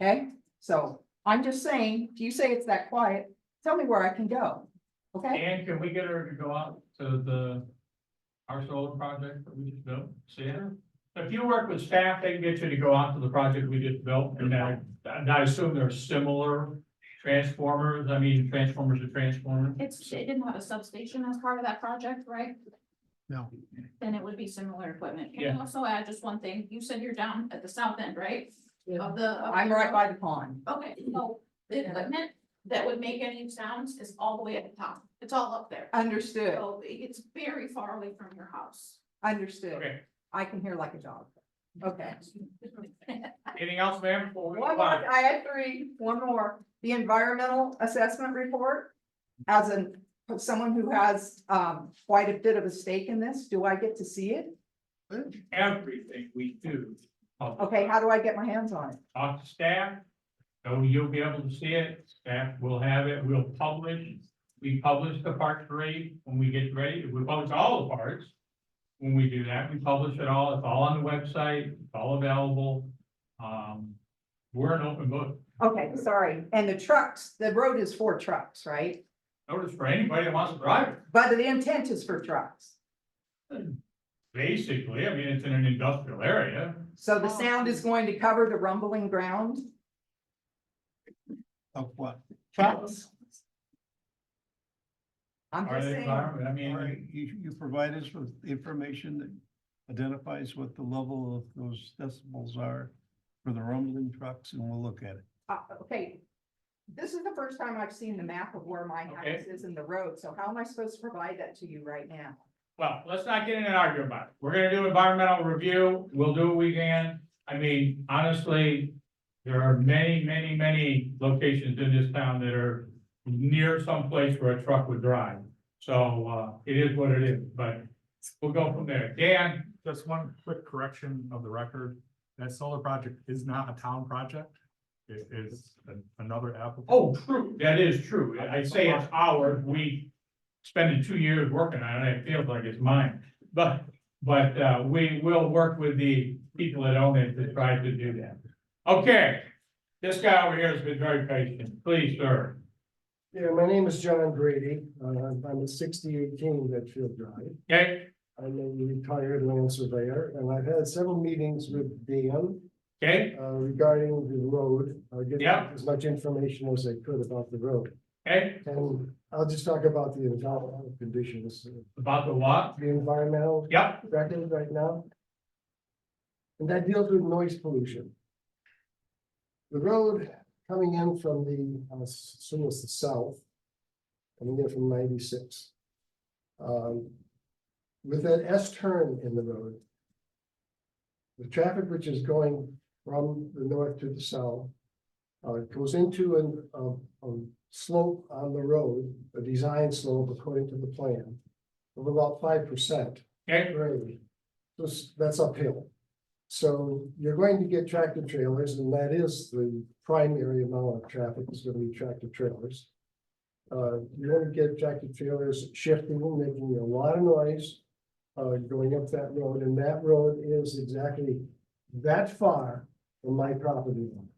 Okay, so I'm just saying, if you say it's that quiet, tell me where I can go. Okay, And can we get her to go out to the, our solar project that we just built, see her? If you work with staff, they can get you to go out to the project we just built, and I, and I assume there are similar transformers, I mean, transformers to transformers. It's, it didn't have a substation as part of that project, right? No. Then it would be similar equipment. Can Yeah. you also add just one thing? You said you're down at the south end, right? Of the. of I'm the right road? by the pond. Okay, so the equipment that would make any sounds is all the way at the top. It's all up there. Understood, So it's very far away from your house. understood. Okay, I can hear like a dog. Okay. anything else, ma'am? before we Mm-hmm. One go on? more, I had three, one more, the environmental assessment report. As an, someone who has um quite a bit of a stake in this, do I get to see it? Everything we do. Okay, how do I get my hands on it? Talk to staff, so you'll be able to see it, staff will have it, we'll publish. We publish the park parade when we get ready, we publish all the parks. When we do that, we publish it all, it's all on the website, it's all available. Um, we're an open book, Okay, sorry, and the trucks, the road is for trucks, right? notice for anybody that wants to drive, it. But the intent is for trucks, basically, I mean, it's in an industrial area. so the sound is going to cover the rumbling ground? Of what? Trucks. I'm Or just the saying, environment, I All right, mean, you, you provide us with information that identifies what the level of those decibels are for the rumbling trucks, and we'll look at it. uh, okay. This is the first time I've seen the map of where my house Okay. is in the road, so how am I supposed to provide that to you right now? well, let's not get in an argument about it. We're gonna do environmental review, we'll do what we can. I mean, honestly, there are many, many, many locations in this town that are near some place where a truck would drive. So, uh, it is what it is, but we'll go from there. Dan, Just one quick correction of the record, that solar project is not a town project. It is an- another applicant. oh, true, that is true. I say it's ours, we spending two years working on it, it feels like it's mine. But, but, uh, we will work with the people that own it to try to do that. Okay, this guy over here has been very patient. Please, sir. Yeah, my name is John Grady. Uh, I'm a sixty-eight King Medfield Drive. Okay, I'm a retired land surveyor and I've had several meetings with Dan okay, uh, regarding the road. I get Yeah. as much information as I could about the road. okay, And I'll just talk about the environmental conditions, about the what? the environmental Yep, record right now. And that deals with noise pollution. The road coming in from the, uh, s- so it's the south. Coming in from ninety-six. Um, with that S turn in the road. The traffic which is going from the north to the south. Uh, goes into an, a, a slope on the road, a design slope according to the plan. Of about five percent okay, grade. This- that's uphill. So you're going to get tractor trailers, and that is the primary amount of traffic is gonna be tractor trailers. Uh, you're gonna get tractor trailers shifting, making a lot of noise, uh, going up that road, and that road is exactly that far from my property line.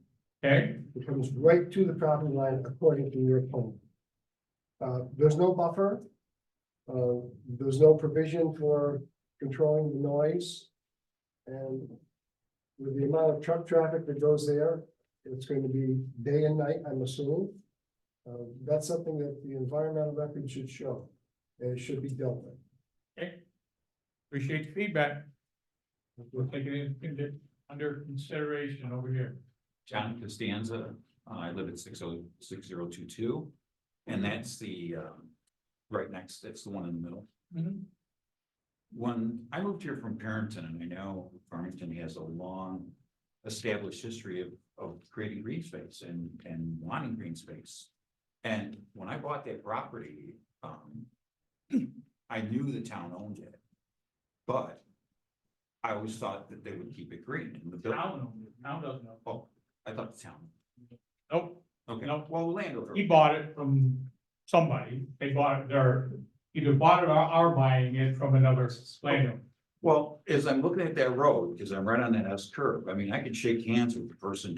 okay, It comes right to the property line according to your plan. Uh, there's no buffer. Uh, there's no provision for controlling the noise. And with the amount of truck traffic that goes there, it's going to be day and night, I'm assuming. Uh, that's something that the environmental record should show, and it should be dealt with. appreciate the feedback. We'll take it in- in- under consideration over here. John Costanza, uh, I live at six oh, six zero two two. And that's the, um, right next, that's the one in the middle. Mhm. When I moved here from Parenton, and I know Farmington has a long established history of, of creating green space and, and wanting green space. And when I bought that property, um, I knew the town owned it. But I always thought that they would keep it green and the. buil- Town, owns it. town doesn't know. Oh, I thought the town. Nope. Okay, Nope. well, landowner. He bought it from somebody, they bought it, they're either bought it or are buying it from another landowner. Well, as I'm looking at that road, because I'm right on that S curve, I mean, I could shake hands with the person